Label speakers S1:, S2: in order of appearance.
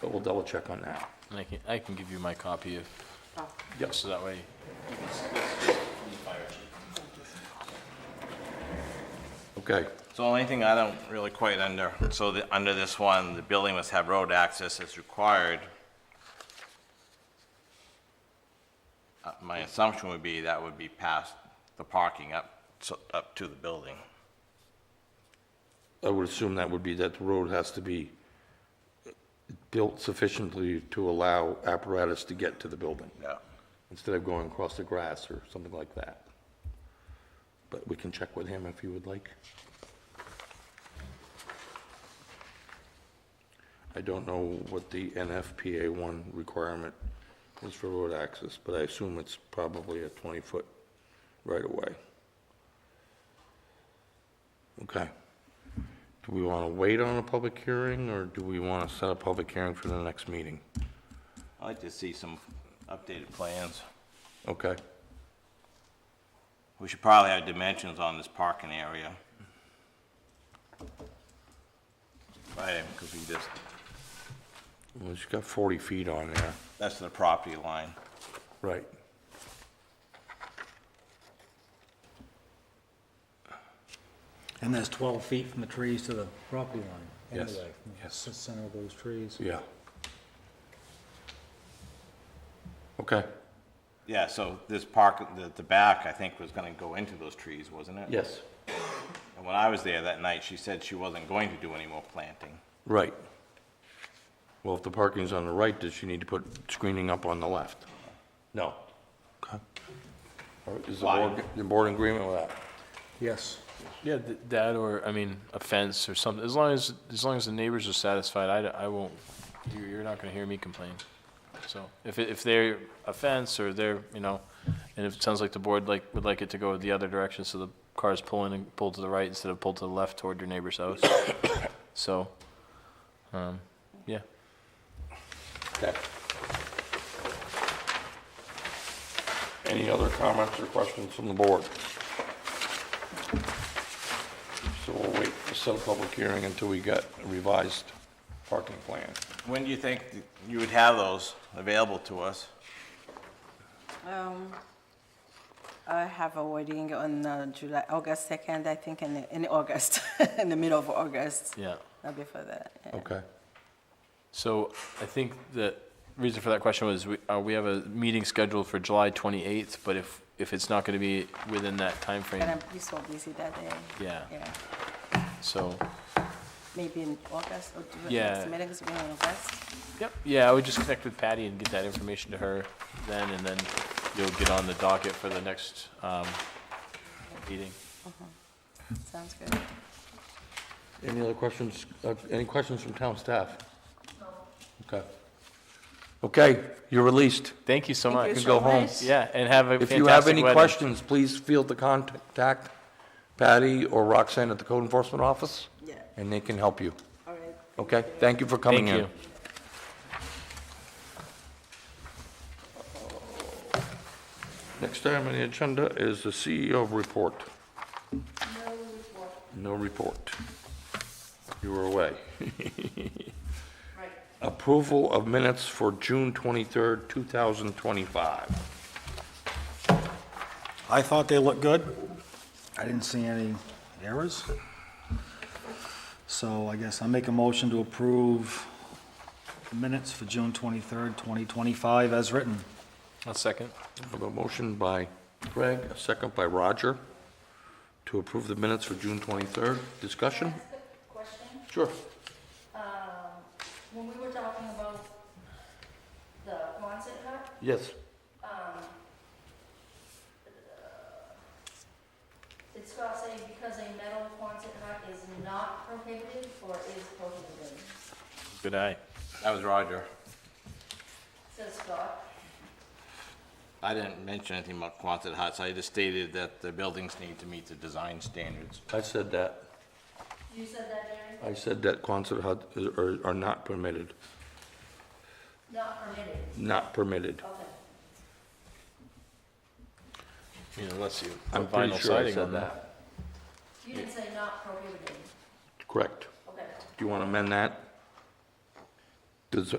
S1: but we'll double check on that.
S2: And I can, I can give you my copy of,
S1: Yes.
S2: so that way.
S1: Okay,
S3: So only thing I don't really quite under, so the, under this one, the building must have road access as required. Uh, My assumption would be that would be past the parking up, so, up to the building.
S1: I would assume that would be that the road has to be built sufficiently to allow apparatus to get to the building,
S3: Yeah.
S1: instead of going across the grass or something like that. But we can check with him if you would like. I don't know what the NFPA one requirement is for road access, but I assume it's probably a 20-foot right-of-way. Okay. Do we want to wait on a public hearing, or do we want to set a public hearing for the next meeting?
S3: I'd like to see some updated plans.
S1: Okay,
S3: We should probably have dimensions on this parking area. Right, because we just,
S1: well, it's got 40 feet on there.
S3: that's the property line.
S1: Right.
S4: And that's 12 feet from the trees to the property line,
S1: Yes,
S4: anyway. from the
S1: yes.
S4: Center of those trees.
S1: Yeah. Okay.
S3: Yeah, so this park, the, the back, I think, was gonna go into those trees, wasn't it?
S1: Yes.
S3: And when I was there that night, she said she wasn't going to do any more planting.
S1: Right. Well, if the parking's on the right, does she need to put screening up on the left? No. Okay. All right, Is the
S3: Why?
S1: board, the board in agreement with that?
S4: Yes.
S2: Yeah, th- that or, I mean, a fence or something, as long as, as long as the neighbors are satisfied, I, d- I won't, you're, you're not gonna hear me complain. So, if, it- if they're a fence or they're, you know, and if it sounds like the board like, would like it to go the other direction, so the car's pulling and pull to the right instead of pull to the left toward your neighbor's house. So, um, yeah.
S1: Okay. Any other comments or questions from the board? So we'll wait to set a public hearing until we get a revised parking plan.
S3: When do you think th- you would have those available to us?
S5: Um, I have a wedding on uh, July, August 2nd, I think, in, in August, in the middle of August,
S2: Yeah.
S5: not before that. yeah.
S1: Okay.
S2: So I think the reason for that question was, we, uh, we have a meeting scheduled for July twenty-eighth, but if, if it's not gonna be within that
S5: But I'm
S2: timeframe,
S5: be so busy that day.
S2: yeah,
S5: Yeah,
S2: so,
S5: maybe in August or do the
S2: Yeah.
S5: next meetings be in August.
S2: yep, yeah, I would just connect with Patty and get that information to her then, and then you'll get on the docket for the next, um, meeting.
S5: Sounds good.
S1: Any other questions, uh, any questions from town staff? Okay. Okay, you're released.
S2: Thank you so much.
S5: you
S1: You go home.
S2: Yeah, and have a
S1: If you have
S2: fantastic
S1: any
S2: wedding.
S1: questions, please feel to contact Patty or Roxanne at the Code Enforcement Office,
S5: Yeah,
S1: and they can help you.
S5: all right.
S1: Okay? Thank you for coming
S2: Thank
S1: in.
S2: you.
S1: Next item on the agenda is the CEO report. No report. No report. You were away. Approval of minutes for June 23rd, 2025.
S4: I thought they looked good. I didn't see any errors. So I guess I'll make a motion to approve minutes for June 23rd, 2025 as written.
S2: One second.
S1: I have a motion by Greg, a second by Roger, to approve the minutes for June 23rd. Discussion?
S6: Question,
S1: Sure.
S6: um, when we were talking about the Quonset hut,
S1: Yes.
S6: did Scott say because a metal Quonset hut is not prohibited or is prohibited?
S2: Good eye.
S3: That was Roger.
S6: Says Scott,
S3: I didn't mention anything about Quonset huts. I just stated that the buildings need to meet the design standards.
S1: I said that.
S6: you said that, Jerry,
S1: I said that Quonset hut are are not permitted,
S6: not permitted,
S1: not permitted.
S6: okay.
S2: You know, unless you.
S1: I'm
S2: put
S1: pretty
S2: vinyl
S1: sure I
S2: siding on
S1: said that.
S6: You didn't say not prohibited,
S1: Correct.
S6: okay.
S1: Do you want to amend that? Does-